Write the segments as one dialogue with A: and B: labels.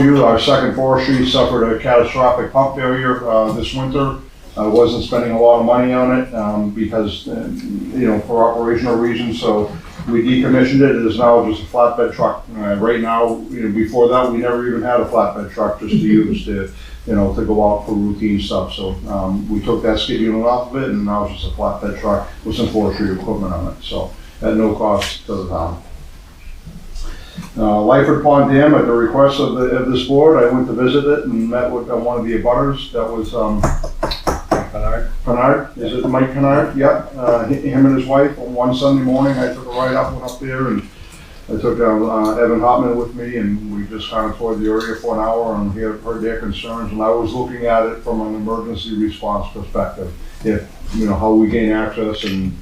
A: you, our second forestry suffered a catastrophic pump failure uh, this winter. I wasn't spending a lot of money on it um, because, uh, you know, for operational reasons, so we decommissioned it. It is now just a flatbed truck. Uh, Right now, you know, before that, we never even had a flatbed truck just to use to, you know, to go out for routine stuff. So um, we took that skid unit off of it and now it's just a flatbed truck with some forestry equipment on it, so at no cost to the town. Uh, Lyford Pond Dam, at the request of the, of this board, I went to visit it and met with uh, one of the abutters, that was, um, Pennard, is it Mike Pennard? Yeah, uh, hi- him and his wife, on one Sunday morning, I took a ride up, went up there, and I took uh, uh, Evan Hopman with me, and we just kind of toured the area for an hour, and heard, heard their concerns, and I was looking at it from an emergency response perspective. If, you know, how we gain access and,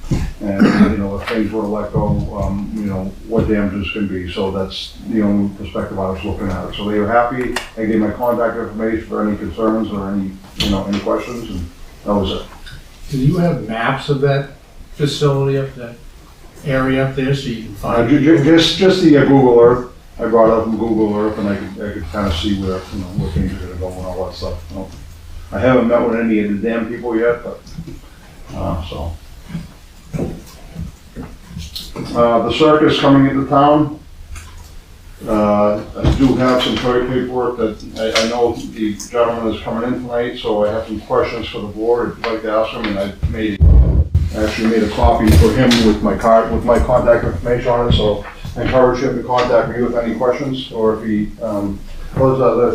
A: and, you know, if things were to let go, um, you know, what damages can be, so that's the only perspective I was looking at. So they were happy, I gave my contact information for any concerns or any, you know, any questions, and that was it.
B: Do you have maps of that facility up that area up there so you can
A: Uh,
B: find
A: ju-
B: it?
A: ju- just, just the uh, Google Earth, I brought up from Google Earth and I could, I could kind of see where, you know, where things are gonna go and all that stuff. you know. I haven't met with any of the damn people yet, but, uh, so. Uh, the circus coming into town. Uh, I do have some toy paperwork that, I, I know the gentleman is coming in tonight, so I have some questions for the board, I'd like to ask him, and I made I actually made a copy for him with my card, with my contact information on it, so I encourage him to contact me with any questions, or if he, um, those are the,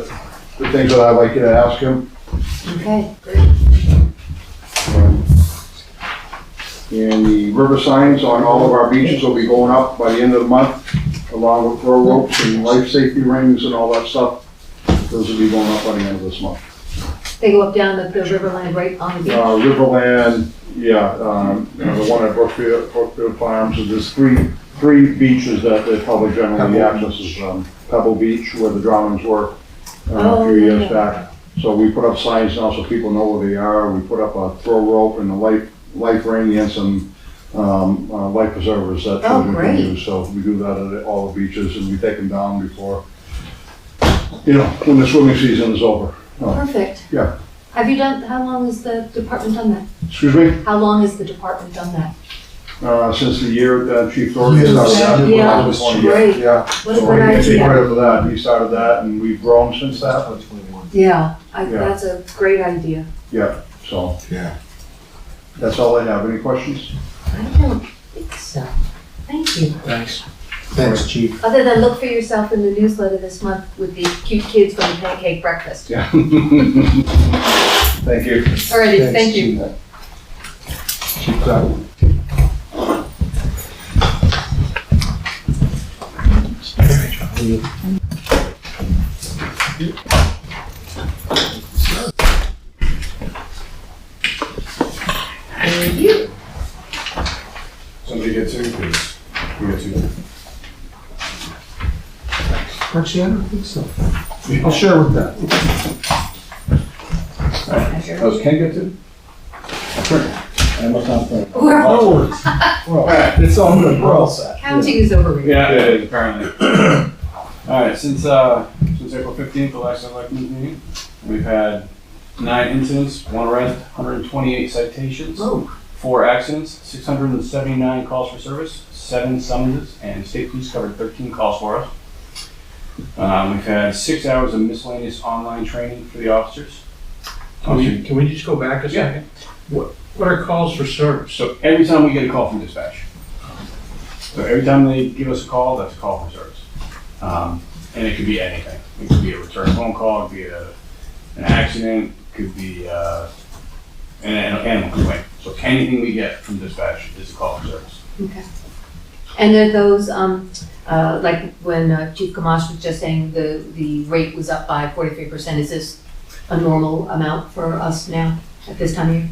A: the things that I'd like you to ask him.
C: Okay,
A: And the river signs on all of our beaches will be going up by the end of the month, along with throw ropes and life safety rings and all that stuff. Those will be going up by the end of this month.
C: they go up down the, the Riverland right on the beach.
A: Uh, Riverland, yeah, um, you know, the one at Brookfield, Brookfield Farms, and there's three, three beaches that the public generally accesses, um, Pebble Beach, where the drownings were, uh, a
C: Oh,
A: few years
C: yeah.
A: back. So we put up signs now so people know where they are, we put up a throw rope and a life, life ring and some, um, uh, life preservers that
C: Oh,
A: children can
C: great.
A: use. So we do that at all the beaches and we take them down before, you know, when the swimming season is over.
C: Perfect.
A: Yeah.
C: Have you done, how long has the department done that?
A: Excuse me?
C: How long has the department done that?
A: uh, since the year that Chief Thornton
B: Years.
A: started.
C: Yeah,
A: that was one year.
C: great.
A: Oh, Yeah.
C: What a
A: So
C: good
A: he- He
C: idea.
A: started for that, he started that, and we've grown since that,
C: Yeah, I,
A: Yeah.
C: that's a great idea.
A: so.
D: Yeah.
A: That's all I have, any questions?
C: I don't think so. Thank you.
B: Thanks.
D: Thanks, chief.
C: Other than look for yourself in the newsletter this month with the cute kids from the pancake breakfast.
A: Yeah. Thank you.
C: Alrighty,
D: Thanks,
C: thank you.
D: Chief. Chief
B: uh,
D: Cloud.
C: Thank you.
D: Somebody get two, please. We get two.
B: Actually, I don't think so. I'll share with that.
D: Those can get two? I must not uh, think.
C: We're-
B: No worries. Oh, Well, It's all good, we're all set.
C: Counting is overrated.
E: Yeah, it is, apparently. All right, since, uh, since April fifteenth, the last selectmen's meeting, we've had nine incidents, one arrest, hundred and twenty-eight citations,
B: Oh.
E: four accidents, six hundred and seventy-nine calls for service, seven summonses, and state police covered thirteen calls for us. Um, we've had six hours of miscellaneous online training for the officers.
B: Can we, can we just go back a
E: Yeah.
B: second? What, what are calls for service?
E: So every time we get a call from dispatch, so every time they give us a call, that's a call for service. Um, and it could be anything. It could be a return phone call, it could be a, an accident, it could be, uh, an, an animal complaint. So anything we get from dispatch is a call for service.
C: Okay. And are those, um, uh, like when uh, Chief Gamache was just saying the, the rate was up by forty-three percent, is this a normal amount for us now at this time of year?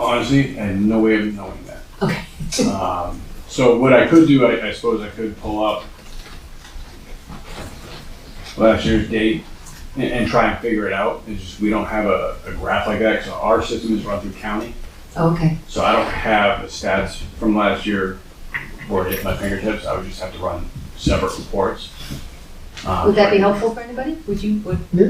E: Honestly, I had no way of knowing that.
C: Okay.
E: Um, so what I could do, I, I suppose I could pull up last year's date and, and try and figure it out. It's just, we don't have a, a graph like that, so our system is run through county.
C: Oh, Okay,
E: So I don't have the stats from last year or at my fingertips. I would just have to run separate reports. Um,
C: Would that be helpful for anybody? Would you, would